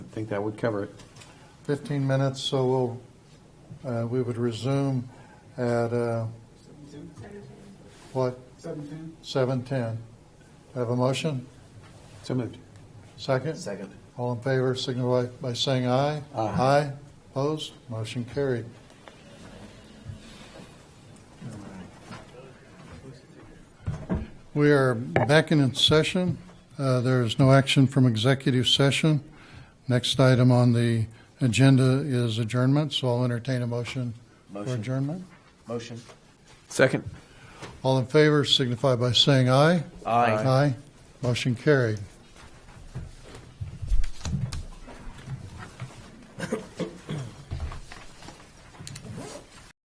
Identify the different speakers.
Speaker 1: I think that would cover it.
Speaker 2: 15 minutes, so we'll, uh, we would resume at, uh, what? 7:10. 7:10. Have a motion?
Speaker 1: So moved.
Speaker 2: Second? Second. All in favor, signify by saying aye.
Speaker 1: Aye.
Speaker 2: Aye. Opposed? Motion carried. We are back in session. Uh, There is no action from executive session. Next item on the agenda is adjournment, so I'll entertain a motion for
Speaker 3: Motion.
Speaker 2: adjournment.
Speaker 3: Motion.
Speaker 1: Second.
Speaker 2: All in favor, signify by saying aye.
Speaker 3: Aye.
Speaker 2: Aye. Motion carried.